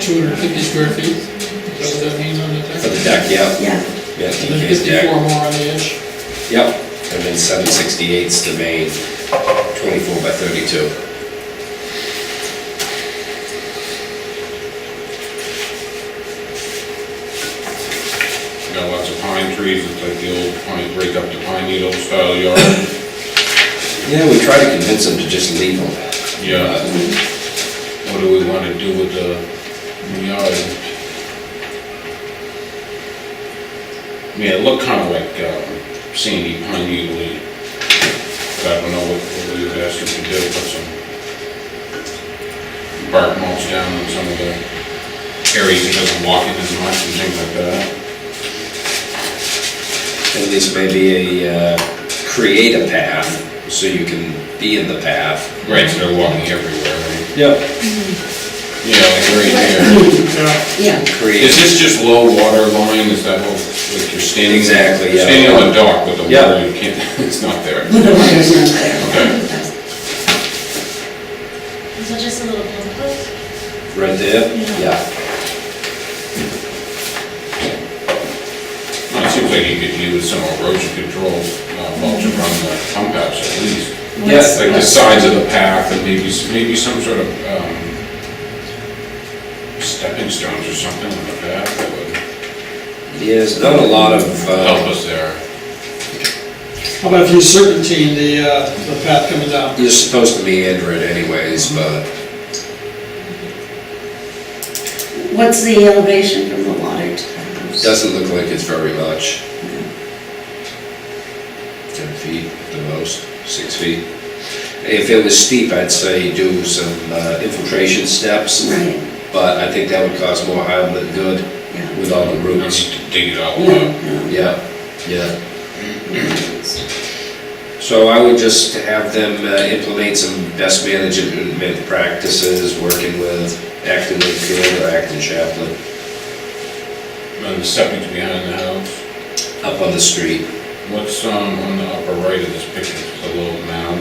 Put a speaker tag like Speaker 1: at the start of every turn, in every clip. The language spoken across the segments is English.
Speaker 1: two hundred fifty square feet, is that what that means on the
Speaker 2: For
Speaker 1: deck?
Speaker 2: the deck, yeah,
Speaker 3: Yeah,
Speaker 2: yeah,
Speaker 1: And then
Speaker 2: DK's
Speaker 1: fifty-four
Speaker 2: deck,
Speaker 1: more on the edge,
Speaker 2: yep, and then seven sixty-eight's the main, twenty-four by thirty-two.
Speaker 4: Got lots of pine trees, it's like the old pine, break up the pine needle style yard.
Speaker 2: Yeah, we tried to convince them to just leave Uh, them.
Speaker 4: Yeah. What do we wanna do with the new yard? I mean, it looked kinda like uh, sandy pine needle. But I don't know what, what we would ask them to do, put some bark mulch down in some of the areas it doesn't walk in as much and things like that.
Speaker 2: At least maybe a, uh, create a path, so you can be in the path.
Speaker 4: Right, so they're walking everywhere, right?
Speaker 2: Yep.
Speaker 4: Yeah, like right here.
Speaker 3: yeah.
Speaker 4: Is
Speaker 2: Create,
Speaker 4: this just low water line, is that what, like you're standing?
Speaker 2: Exactly, yeah.
Speaker 4: Standing on the dock with the
Speaker 2: Yeah.
Speaker 4: water, you can't, it's not there.
Speaker 3: The water's not there.
Speaker 5: Is that just a little bit?
Speaker 2: right there, yeah.
Speaker 4: Well, It seems like you could use some erosion control uh, mulch around the pump house at least.
Speaker 2: Yes.
Speaker 4: Like the sides of the path and maybe, s- maybe some sort of, um, stepping stones or something on the path that would
Speaker 2: Yeah, There's not a lot of,
Speaker 4: help
Speaker 2: uh,
Speaker 4: us there.
Speaker 1: how about if you serpentine the, uh, the path coming down?
Speaker 2: you're supposed to meander it anyways, but
Speaker 3: What's the elevation from the water to the house?
Speaker 2: doesn't look like it's very much. Ten feet at the most, six feet. If it was steep, I'd say do some uh, infiltration steps,
Speaker 3: Right,
Speaker 2: but I think that would cause more harm than good
Speaker 3: yeah.
Speaker 2: with all the
Speaker 4: You don't need
Speaker 2: roots.
Speaker 4: to dig it all up.
Speaker 3: No,
Speaker 2: Yeah, yeah. So I would just have them uh, implement some best management practices, working with Acton Wakefield or Acton Chaplain
Speaker 4: And the stepping's behind the house.
Speaker 2: up on the street,
Speaker 4: What's, um, on the upper right of this picture, It's a little mound?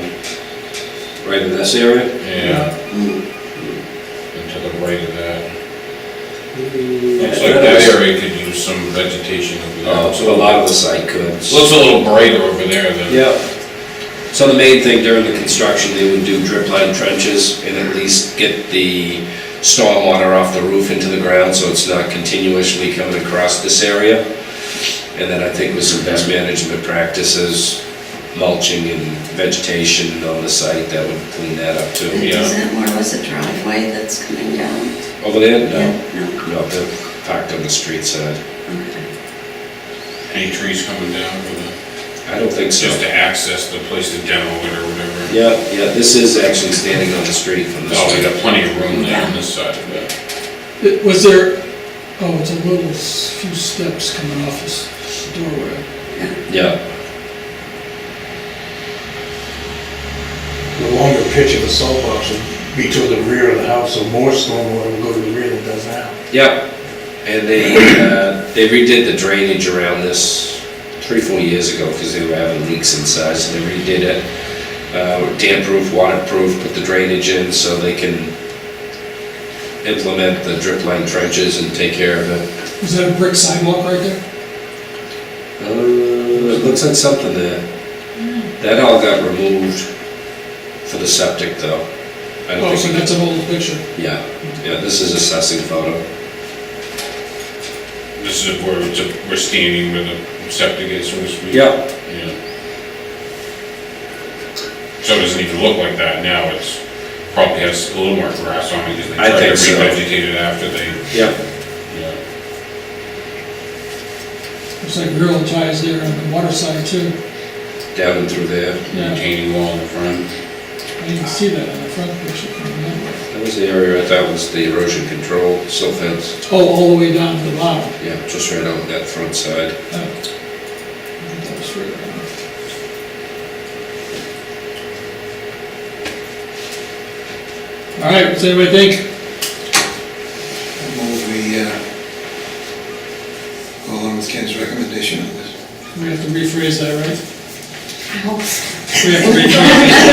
Speaker 2: right in this area.
Speaker 4: Yeah.
Speaker 3: no.
Speaker 4: and to the right of that. Looks like that
Speaker 2: Yeah.
Speaker 4: area could use some vegetation over there.
Speaker 2: Uh, So a lot of the site could.
Speaker 4: Looks a little brighter over there than.
Speaker 2: Yep. So the main thing during the construction, they would do drip line trenches and at least get the stormwater off the roof into the ground so it's not continuously coming across this area. And then I think with some best management practices, mulching and vegetation on the site, that would clean that up too.
Speaker 4: Yeah.
Speaker 3: Is that where was the driveway that's coming down?
Speaker 2: Over there?
Speaker 3: Yeah, No,
Speaker 2: No, no, they're parked on the street side.
Speaker 3: okay.
Speaker 4: Any trees coming down for the,
Speaker 2: I don't think so.
Speaker 4: just to access the place to demo it or whatever.
Speaker 2: Yeah, yeah, this is actually standing on the street from the
Speaker 4: Oh, we
Speaker 2: street.
Speaker 4: got plenty of room there on this side of it.
Speaker 1: It- Was there, oh, it's a little, s- few steps coming off this doorway.
Speaker 2: Yeah.
Speaker 6: the longer pitch of a soapbox would be to the rear of the house, so more stormwater would go to the rear than it does now.
Speaker 2: Yep, and they, uh, they redid the drainage around this three, four years ago, because they were having leaks inside, so they redid it. Uh, damp-proof, waterproof, put the drainage in, so they can implement the drip line trenches and take care of it.
Speaker 1: Is that a brick sidewalk right there?
Speaker 2: Uh, it looks like something there. That all got removed for the septic, though. I don't
Speaker 1: Oh, so
Speaker 2: think-
Speaker 1: that's an old picture.
Speaker 2: Yeah, yeah, this is assessing photo.
Speaker 4: This is where it's, a- we're standing where the septic is, so to speak.
Speaker 2: Yep,
Speaker 4: Yeah. So it doesn't even look like that now, it's, probably has a little more grass on it, because they
Speaker 2: I
Speaker 4: tried to
Speaker 2: think so.
Speaker 4: revegetate it after they,
Speaker 2: yep.
Speaker 4: yeah.
Speaker 1: Looks like grill ties there on the water side too.
Speaker 2: Down and through there.
Speaker 1: Yeah,
Speaker 4: retaining wall in the front.
Speaker 1: I didn't see that on the front picture. I don't remember.
Speaker 2: That was the area, that was the erosion control silt fence,
Speaker 1: Oh, all the way down to the bottom.
Speaker 2: yeah, just right on that front side.
Speaker 1: Oh. That was right on. All right, what's anybody think?
Speaker 7: Move we uh, go along with Ken's recommendation on this.
Speaker 1: We have to rephrase that, right?
Speaker 5: I hope so.
Speaker 1: We have to rephrase.